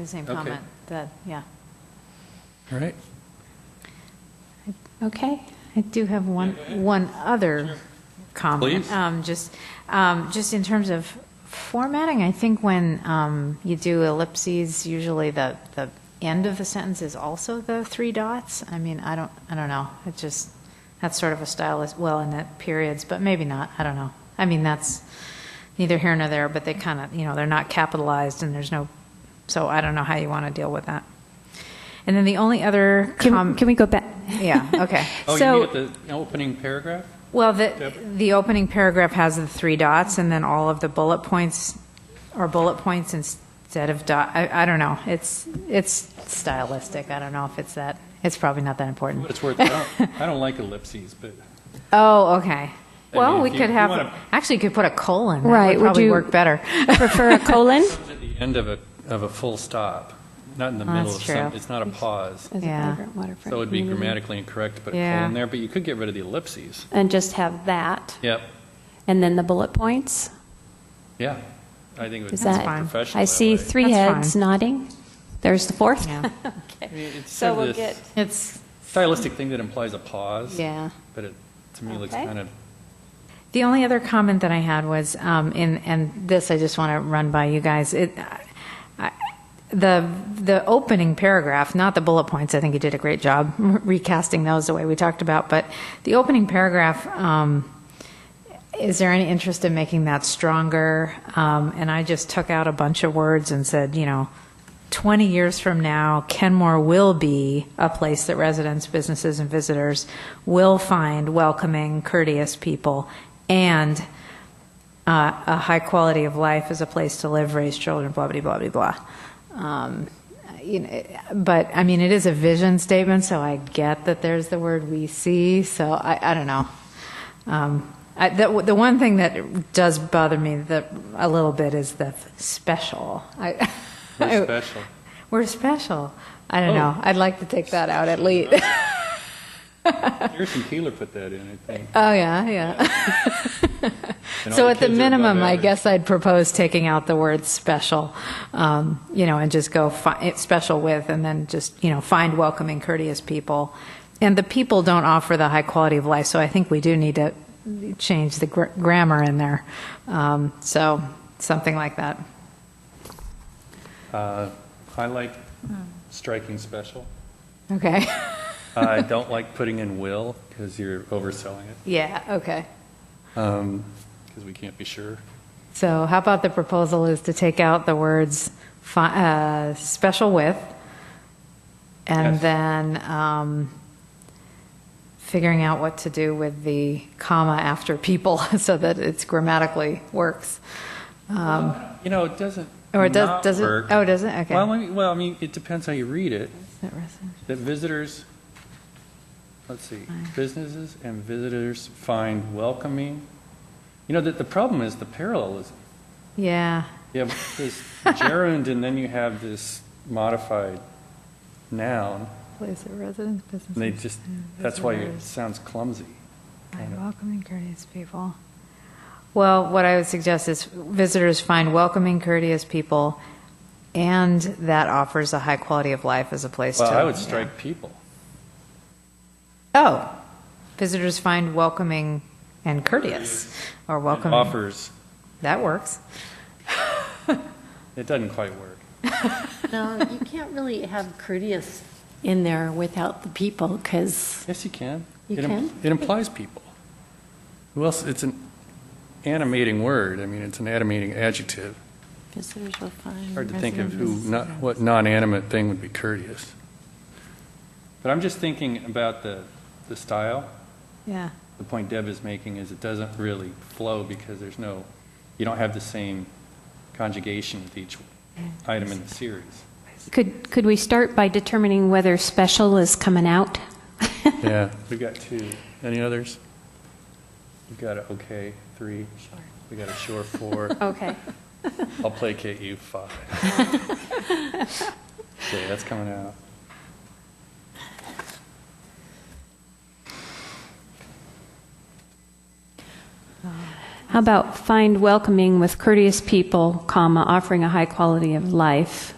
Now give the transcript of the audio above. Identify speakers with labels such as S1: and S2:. S1: The same
S2: Okay.
S1: comment, that, yeah.
S2: All right.
S1: Okay, I do have one, one other comment.
S2: Please.
S1: Um, Just, um, just in terms of formatting, I think when um, you do ellipses, usually the, the end of the sentence is also the three dots. I mean, I don't, I don't know, it just, that's sort of a style as well in that periods, but maybe not, I don't know. I mean, that's neither here nor there, but they kind of, you know, they're not capitalized and there's no, so I don't know how you want to deal with that. And then the only other
S3: Can,
S1: comment.
S3: can we go back?
S1: Yeah, okay.
S2: Oh,
S3: So-
S2: you mean at the opening paragraph?
S1: Well, the,
S2: Yep.
S1: the opening paragraph has the three dots, and then all of the bullet points are bullet points instead of dot, I, I don't know, it's, it's stylistic, I don't know if it's that, it's probably not that
S2: But
S1: important.
S2: It's worth, I don't, I don't like ellipses, but
S1: Oh, okay.
S2: I
S1: Well,
S2: mean,
S1: we
S2: if you-
S1: could
S2: you
S1: have,
S2: wanna-
S1: actually, you could put a colon, that
S3: Right,
S1: would
S3: would
S1: probably
S3: you-
S1: work better.
S3: Prefer a colon?
S2: it's at the end of a, of a full stop, not in the
S1: Oh,
S2: middle
S1: that's
S2: of some,
S1: true.
S2: it's not a pause.
S3: As a
S1: Yeah.
S3: vibrant waterfront
S2: So it'd be
S3: community.
S2: grammatically incorrect to put a
S1: Yeah.
S2: colon there, but you could get rid of the ellipses.
S3: And just have that,
S2: Yep,
S3: and then the bullet points.
S2: yeah. I think it would
S3: Is
S2: be
S3: that-
S1: fine.
S2: professional
S3: I see
S2: that way.
S3: three
S1: That's
S3: heads
S1: fine.
S3: nodding. There's the fourth.
S1: Yeah.
S2: I mean, It's
S3: So
S2: sort
S3: we'll
S2: of
S3: get-
S2: this
S1: It's,
S2: stylistic thing that implies a pause.
S3: Yeah.
S2: But it, to me, looks
S3: Okay.
S2: kind of,
S1: The only other comment that I had was, um, in, and this I just want to run by you guys. It, I, the the opening paragraph, not the bullet points. I think you did a great job recasting those the way we talked about. But the opening paragraph. Um, is there any interest in making that stronger? Um, and I just took out a bunch of words and said, you know, 20 years from now, Kenmore will be a place that residents, businesses, and visitors will find welcoming, courteous people, and uh, a high quality of life as a place to live, raise children, blah, blah, blah, blah, blah. Um, you know, but I mean, it is a vision statement, so I get that there's the word we see, so I, I don't know. Um, I, the, the one thing that does bother me the, a little bit is the special. I,
S2: we're special.
S1: we're special. I don't
S2: Oh.
S1: know. I'd like to take that out at oh, least.
S2: Harrison Keeler put that in, I think.
S1: oh yeah, yeah.
S2: And all
S1: so
S2: the
S1: at the
S2: kids are above
S1: minimum, I
S2: average.
S1: guess I'd propose taking out the word special, um, you know, and just go fi- eh, special with, and then just you know find welcoming, courteous people. And the people don't offer the high quality of life, so I think we do need to change the gr- grammar in there. Um, so something like that.
S2: Uh, I like striking special.
S1: Okay.
S2: I don't like putting in will because you're overselling it,
S1: yeah. Okay.
S2: because we can't be sure.
S1: So how about the proposal is to take out the words fi- uh, "special with," and
S2: Yes.
S1: then um, figuring out what to do with the comma after people so that it's grammatically works. Um,
S2: You know, it doesn't.
S1: Or it does-
S2: not
S1: does it-
S2: work.
S1: oh, does it? Okay.
S2: Well, I mean, well, I mean, it depends how you read it.
S1: is that resident-
S2: That visitors, let's see, businesses and visitors find welcoming. You know, that the problem is the parallelism.
S1: yeah.
S2: You have this gerund and then you have this modified noun.
S1: Place of residence, business.
S2: And they just, that's why it sounds clumsy.
S1: I
S2: kind of.
S1: welcome and courteous people. Well, what I would suggest is visitors find welcoming, courteous people, and that offers a high quality of life as a place
S2: Well,
S1: to.
S2: I would strike people.
S1: Oh, visitors find welcoming and courteous, or welcoming.
S2: Offers,
S1: That works.
S2: it doesn't quite work.
S4: No, you can't really have courteous in there without the people, because
S2: Yes, you can.
S4: You
S2: It im-
S4: can?
S2: It implies people. Who else, it's an animating word, I mean, it's an animating adjective.
S4: visitors will find.
S2: Hard to think of who,
S4: residents-
S2: not, what non-animate thing would be courteous. But I'm just thinking about the, the style.
S1: Yeah.
S2: The point Deb is making is it doesn't really flow because there's no, you don't have the same conjugation with each item in the series.
S3: Could, could we start by determining whether special is coming out?
S2: Yeah. We've got two. Any others? We've got a okay, three. We got a sure, four.
S3: Okay.
S2: I'll placate you, five. Okay, that's coming out.
S3: How about find welcoming with courteous people, comma, offering a high quality of life?